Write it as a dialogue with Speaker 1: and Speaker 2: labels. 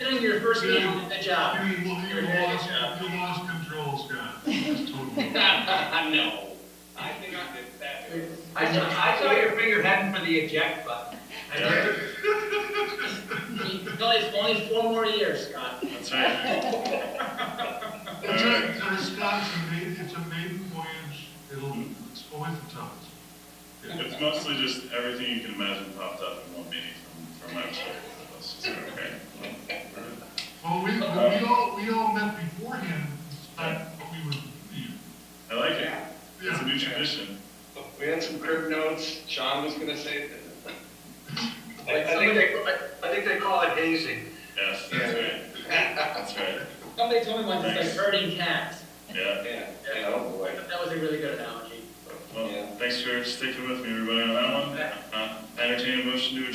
Speaker 1: literally your first day on the job.
Speaker 2: You, you lost,
Speaker 1: Your head is up.
Speaker 2: you lost control, Scott. It's totally-
Speaker 3: No, I think I did that.
Speaker 4: I saw, I saw your finger heading for the eject button. I
Speaker 5: Yeah.
Speaker 4: did.
Speaker 1: Only, only four more years, Scott.
Speaker 5: That's right.
Speaker 2: It's a, it's a- Uh, Scott, it's a maiden, it's a maiden voyage, it'll, it's always the toughest.
Speaker 5: It's mostly just everything you can imagine popped up in one meeting from, from my perspective. It's just, okay.
Speaker 2: Well, we, we all, we all met beforehand, but we would leave.
Speaker 5: I like it. It's a
Speaker 2: Yeah,
Speaker 5: new tradition.
Speaker 3: We had some crib notes, Sean was gonna say.
Speaker 6: I I think they, I- I think they call it hazing.
Speaker 5: Yes, that's right. That's right.
Speaker 1: Somebody told me once it's like herding cats.
Speaker 5: Yeah.
Speaker 3: Yeah, yeah, oh boy.
Speaker 1: That was a really good analogy.
Speaker 5: Well, thanks for sticking with me, everybody, on that one. Uh, entertain a motion to adjourn.